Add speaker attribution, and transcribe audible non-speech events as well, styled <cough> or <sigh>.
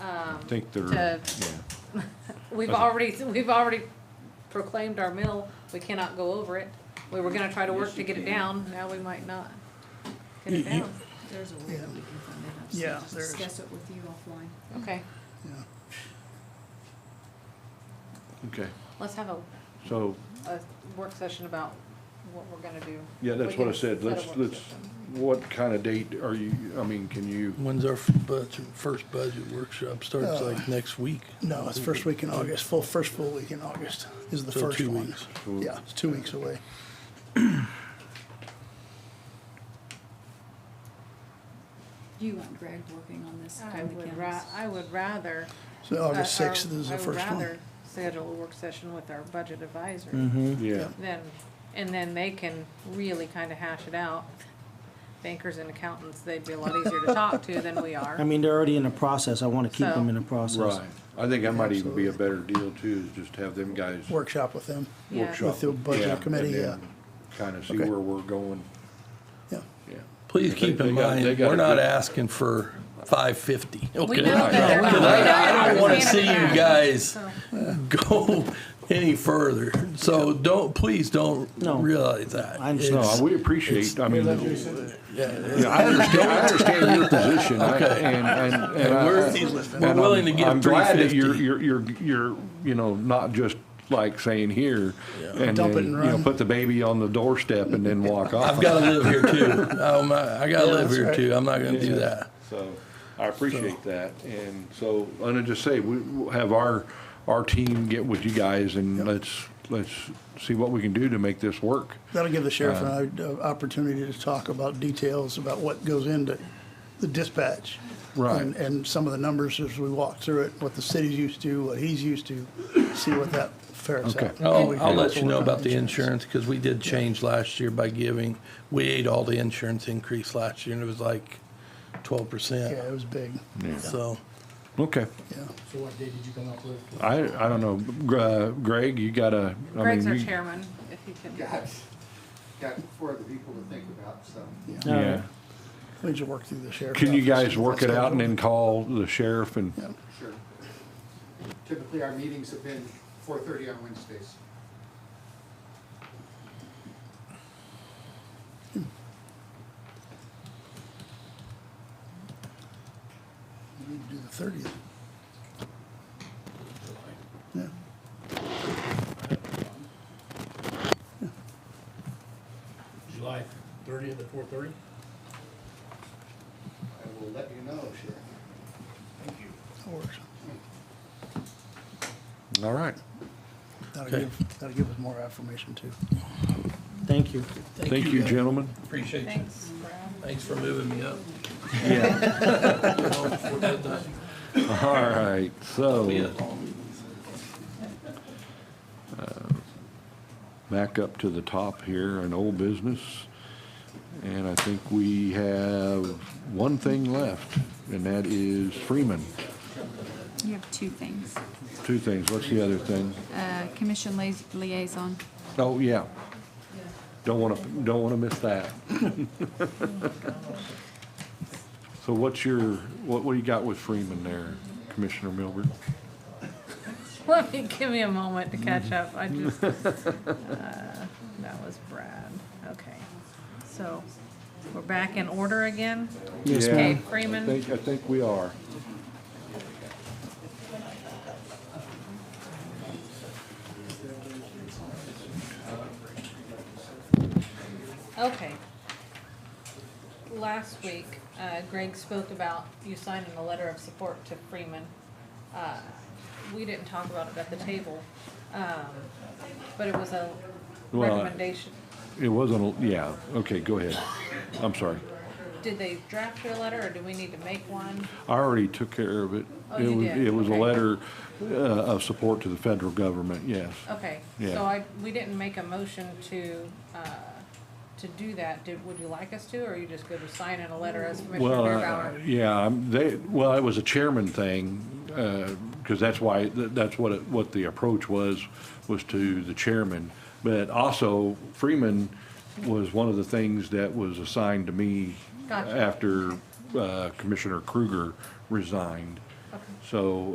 Speaker 1: think they're, yeah.
Speaker 2: um, To- We've already, we've already proclaimed our mill, we cannot go over it. We were gonna try to work
Speaker 3: Yes,
Speaker 2: to
Speaker 3: you
Speaker 2: get it
Speaker 3: can.
Speaker 2: down, now we might not get it down.
Speaker 4: There's a way that we can fund it. I just
Speaker 5: Yeah,
Speaker 4: need to
Speaker 5: there is.
Speaker 4: Discuss it with you offline.
Speaker 2: Okay,
Speaker 5: yeah.
Speaker 1: Okay,
Speaker 2: let's have a,
Speaker 1: so,
Speaker 2: a work session about what we're gonna do.
Speaker 1: yeah, that's
Speaker 2: We
Speaker 1: what I
Speaker 2: can
Speaker 1: said,
Speaker 2: set a
Speaker 1: let's,
Speaker 2: work
Speaker 1: let's,
Speaker 2: session.
Speaker 1: what kind of date are you, I mean, can you,
Speaker 6: When's our f- budget, first budget workshop starts
Speaker 5: Uh,
Speaker 6: like next week?
Speaker 5: No, it's first week in August, full, first full week in August is the
Speaker 6: So
Speaker 5: first
Speaker 6: two
Speaker 5: one.
Speaker 6: weeks.
Speaker 5: Yeah, it's two weeks away.
Speaker 4: You want Greg working on this?
Speaker 2: I would ra- I would rather.
Speaker 5: So August
Speaker 2: uh, or
Speaker 5: sixth is
Speaker 2: I
Speaker 5: Oh, the
Speaker 2: would
Speaker 5: first one. Mm-hmm.
Speaker 2: rather Schedule a work session with our budget advisor.
Speaker 1: yeah,
Speaker 2: Then, and then they can really kind of hash it out. Bankers and accountants, they'd be a lot easier to talk to than we
Speaker 7: I
Speaker 2: are.
Speaker 7: mean, they're already in the process. I want to keep
Speaker 2: So-
Speaker 7: them in the process.
Speaker 1: right. I think that might even be a better deal too, is just have them guys
Speaker 5: Workshop with them.
Speaker 2: Yeah.
Speaker 1: workshop.
Speaker 5: With the budget committee, yeah.
Speaker 1: Kind of see
Speaker 5: Okay.
Speaker 1: where we're going,
Speaker 5: Yeah,
Speaker 1: yeah.
Speaker 6: Please
Speaker 1: They-
Speaker 6: keep
Speaker 1: they
Speaker 6: in
Speaker 1: got- they
Speaker 6: mind,
Speaker 1: got
Speaker 6: we're
Speaker 1: a
Speaker 6: not
Speaker 1: good-
Speaker 6: asking for five fifty.
Speaker 2: We
Speaker 6: Okay,
Speaker 2: know that they're not.
Speaker 6: Because I, I don't wanna
Speaker 2: We
Speaker 6: see you
Speaker 2: understand.
Speaker 6: guys
Speaker 2: So,
Speaker 6: go any further, so don't, please don't
Speaker 7: No.
Speaker 6: realize that.
Speaker 7: I understand.
Speaker 6: It's-
Speaker 1: No, we uh, appreciate, I mean,
Speaker 6: yeah,
Speaker 1: yeah, I understand, I understand your position, I-
Speaker 6: Okay.
Speaker 1: and, and, and I-
Speaker 6: We're, we're
Speaker 1: And I'm-
Speaker 6: willing to
Speaker 1: I'm
Speaker 6: give three
Speaker 1: glad that
Speaker 6: fifty.
Speaker 1: you're, you're, you're, you're, you know, not just like saying here and
Speaker 5: Dump it
Speaker 1: then,
Speaker 5: and
Speaker 1: you know,
Speaker 5: run.
Speaker 1: put the baby on the doorstep and then walk off.
Speaker 6: I've gotta live here too, <laughs> um, I I gotta live
Speaker 5: that's
Speaker 6: here
Speaker 5: right.
Speaker 6: too, I'm not gonna do that.
Speaker 1: So I appreciate that. And so, and I just say, we we'll have our, our team get with you guys and let's, let's see what we can do to make this work.
Speaker 5: that'll give the sheriff an o- opportunity to talk about details about what goes into the dispatch.
Speaker 1: Right.
Speaker 5: And, and some of the numbers as we walk through it, what the city's used to, what he's used to, see what that fares
Speaker 1: Okay.
Speaker 5: out.
Speaker 6: I'll,
Speaker 5: We can
Speaker 6: Oh, I'll let
Speaker 5: also
Speaker 6: you know
Speaker 5: work on
Speaker 6: about the insurance, because we did change last year by giving, we ate all the insurance increase last year, and it was like twelve
Speaker 5: Yeah, it
Speaker 6: percent.
Speaker 5: was big,
Speaker 6: So,
Speaker 1: Okay.
Speaker 5: yeah.
Speaker 8: So what date did you come up with?
Speaker 1: I, I don't know. Gr- uh, Greg, you gotta, I
Speaker 2: Greg's our
Speaker 1: mean, you,
Speaker 2: chairman, if he can.
Speaker 8: Got, got for the people to think about, so.
Speaker 7: All right.
Speaker 1: yeah.
Speaker 5: We need to work through the sheriff.
Speaker 1: Can you
Speaker 5: office,
Speaker 1: guys
Speaker 5: see
Speaker 1: work
Speaker 5: what's
Speaker 1: it out and
Speaker 5: scheduled.
Speaker 1: then call the sheriff and?
Speaker 5: Yeah.
Speaker 8: Sure. Typically, our meetings have been four thirty on Wednesdays.
Speaker 5: We need to Do the thirtieth. Yeah.
Speaker 8: July thirtieth at four thirty? I will let you know, Sheriff. Thank you.
Speaker 5: That works.
Speaker 1: All right.
Speaker 5: That'll
Speaker 6: Okay.
Speaker 5: give, that'll give us more affirmation too.
Speaker 7: Thank you.
Speaker 1: Thank you,
Speaker 6: guys.
Speaker 1: gentlemen.
Speaker 6: Appreciate you,
Speaker 2: Thanks, Brad.
Speaker 6: thanks for moving me up. <laughs>
Speaker 1: Yeah. All right,
Speaker 6: Oh, Yeah.
Speaker 1: so back up to the top here, an old business. And I think we have one thing left, and that is Freeman.
Speaker 4: You have two things.
Speaker 1: Two things. What's the other thing?
Speaker 4: Uh, commission liaison.
Speaker 1: Oh, yeah. Don't want to, don't want to miss that. <laughs> So what's your, what, what do you got with Freeman there, Commissioner Milburn?
Speaker 2: Let me, give me a moment to catch up, I just, uh, that was Brad, okay. So, we're back in order again?
Speaker 7: Yes,
Speaker 1: Yeah.
Speaker 2: Okay,
Speaker 7: ma'am.
Speaker 1: I
Speaker 2: Freeman,
Speaker 1: think, I think we are.
Speaker 2: okay. Last week, uh, Greg spoke about you signing a letter of support to Freeman. Uh, We didn't talk about it at the table, um, but it was a
Speaker 1: Well, I-
Speaker 2: recommendation.
Speaker 1: It wasn't, a- yeah, okay, go ahead. I'm sorry.
Speaker 2: Did they draft your letter, or do we need to make one?
Speaker 1: I already took care of it.
Speaker 2: Oh,
Speaker 1: It
Speaker 2: you
Speaker 1: was,
Speaker 2: did,
Speaker 1: it was a
Speaker 2: okay.
Speaker 1: letter uh, of support to the federal government, yes.
Speaker 2: Okay,
Speaker 1: Yeah.
Speaker 2: so I, we didn't make a motion to, uh, to do that, did, would you like us to, or you just go to sign in a letter as Commissioner
Speaker 1: Well, uh,
Speaker 2: Beerbauer?
Speaker 1: yeah, I'm- they, well, it was a chairman thing, because that's why, that- that's what, it- what the approach was, was to the chairman. But also Freeman was one of the things that was assigned to me
Speaker 2: Gotcha.
Speaker 1: after uh, Commissioner Kruger resigned.
Speaker 2: Okay.
Speaker 1: So